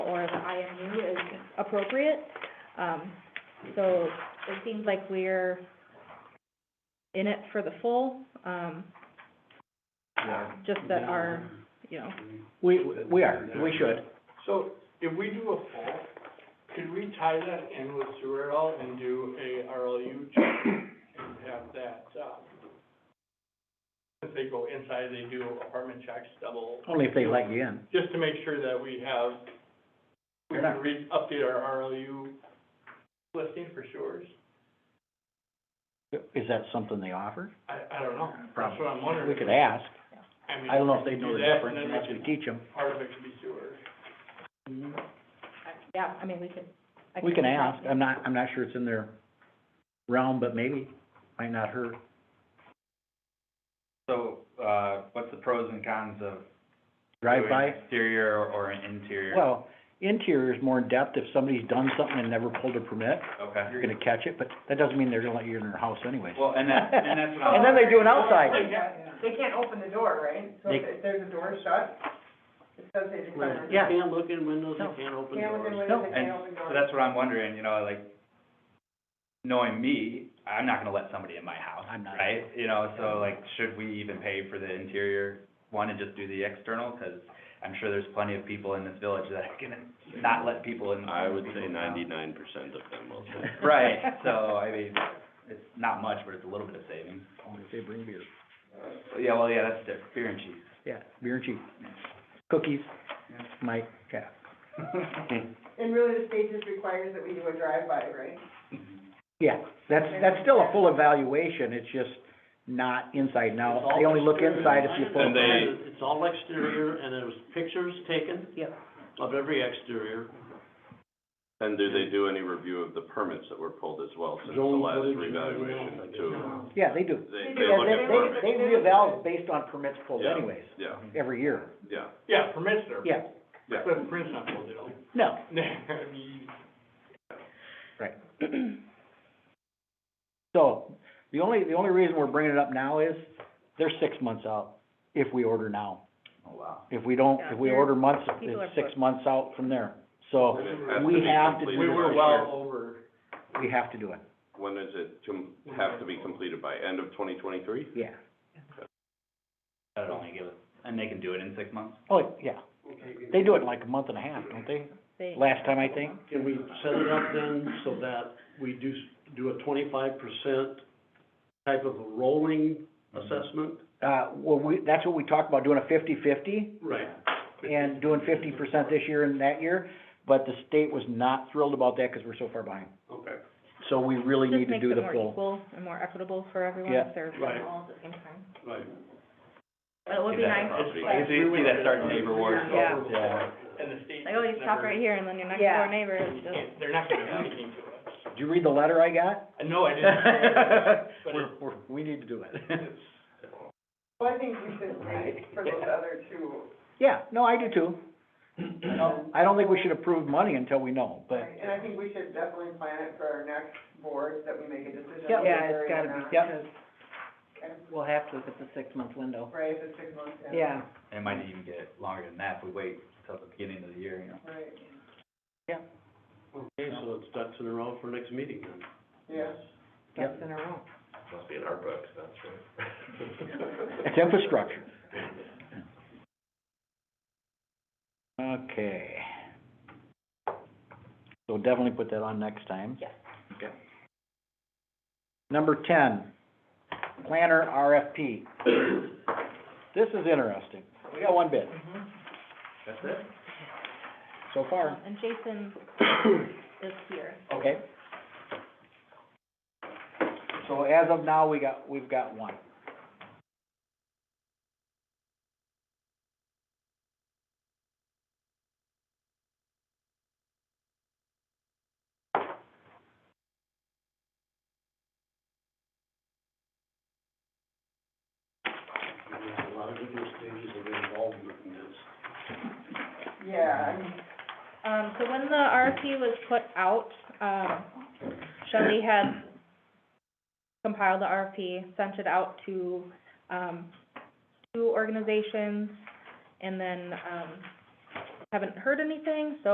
or the IMU is appropriate. Um, so it seems like we're in it for the full, um, Yeah. just that our, you know, We, we are, we should. So if we do a full, could we tie that in with sewer at all and do a RLU check and have that, uh, if they go inside, they do apartment checks, double, Only if they let you in. just to make sure that we have, we Fair can enough. re, update our RLU listing for sewers. Is that something they offer? I, I don't know. That's Probably. what I'm wondering. We could ask. mean, I don't know if they know do the that, difference, And and then if we we could- teach them. part of it could be sewer. yeah, I mean, we could. I We can ask. I'm not, I'm not sure it's in their realm, but maybe, might not hurt. So, uh, what's the pros and cons of Drive by, doing exterior or- or an interior? well, interior is more in depth. If somebody's done something and never pulled a permit, Okay. you're gonna catch it, but that doesn't mean they're gonna let you in their house anyways. Well, and that, and that's what And then I'm, they do it outside. They can't open the door, right? So if if there's a door shut, it says they require. Yeah. Can't look in windows, No. you can't open Can't open doors. windows, they and can't open doors. so that's what I'm wondering, you know, like, knowing me, I'm not gonna let somebody in my house, I'm not. right? You know, so like, should we even pay for the interior one and just do the external? Cause I'm sure there's plenty of people in this village that are gonna not let people in. I would say people's house. ninety-nine percent of them will say. Right, so, I mean, it's not much, but it's a little bit of savings. Only if they bring beer. Yeah, well, yeah, that's different, beer and cheese. Yeah, beer and cheese. Cookies, Yeah. Mike, yeah. And really, the state just requires that we do a drive-by, right? Yeah, that's, that's still a full evaluation, it's just not inside It's now. all They only look exterior. inside if you I pull. And a understand. It's all exterior, and there was pictures taken Yep. of every exterior. And do they do any review of the permits that were pulled as well since the Zone last footage and revaluation everything too? else, Yeah, they do. They, They do, they Yeah, look they, at they, permits, they reeval based on permits pulled Yeah. anyways, yeah, every year. yeah, Yeah, permits are. Yeah, yeah. But permits not pulled at all. no, I mean, so, the only, the only reason we're bringing it up now is, they're six months out if we order now. Oh, wow. If we don't, Yeah, if we they're- order months, people are it's six booked. months out from there. So, And it has we to be have to completed we were by- well over, we have to do it, When is it, com- have to be completed by, end of twenty twenty-three? yeah. That'd only give us, and they can do it in six months? Oh, yeah, they do it in like a month and a half, don't they? They, Last time, I think. Can we set it up then so that we do, s- do a twenty-five percent type of a rolling assessment? Uh, well, we, that's what we talked about, doing a fifty-fifty, Right. and doing fifty percent this year and that year, but the state was not thrilled about that, cause we're so far behind. Okay. So we really need just to makes do it the more full. equal and more equitable for everyone Yeah. if they're Right. all at the same time. Right. But it would See be that nice property. to You like, see, you see that starting neighbor wars? Yeah. and the state. like, oh, you just stop never- right here and then your next Yeah. door neighbor is you just. can't- They're not gonna do anything to us. Did you read the letter I got? Uh, No, I didn't. But We're, we're, we need to do it. it's, Well, I think we should wait for those other two. Yeah, no, I do too. Um, I don't think we should approve money until we know, but, right, And I think we should definitely plan it for our next board, that we make a decision. Yep. Yeah, it's gotta be, Yep. because Okay. we'll have to if it's a six-month window. Right, the six months, yeah. Yeah, And it might even get longer than that if we wait till the beginning of the year, you know? Right, Okay, so it's ducks in a row for next meeting then. yeah. that's in a row. Must be in our books, that's it's infrastructure. Okay. So definitely put that on next time. Yes. Okay. Number ten, planner RFP. This is interesting. We got one bid mm-hmm. That's it? so far. Um, And Jason is here. Okay. So as of now, we got, we've got one. There's a lot of different stages of involvement in this. Yeah, I mean, Um, so when the RFP was put out, um, Shelley had compiled the RFP, sent it out to, um, two organizations, and then, um, haven't heard anything, so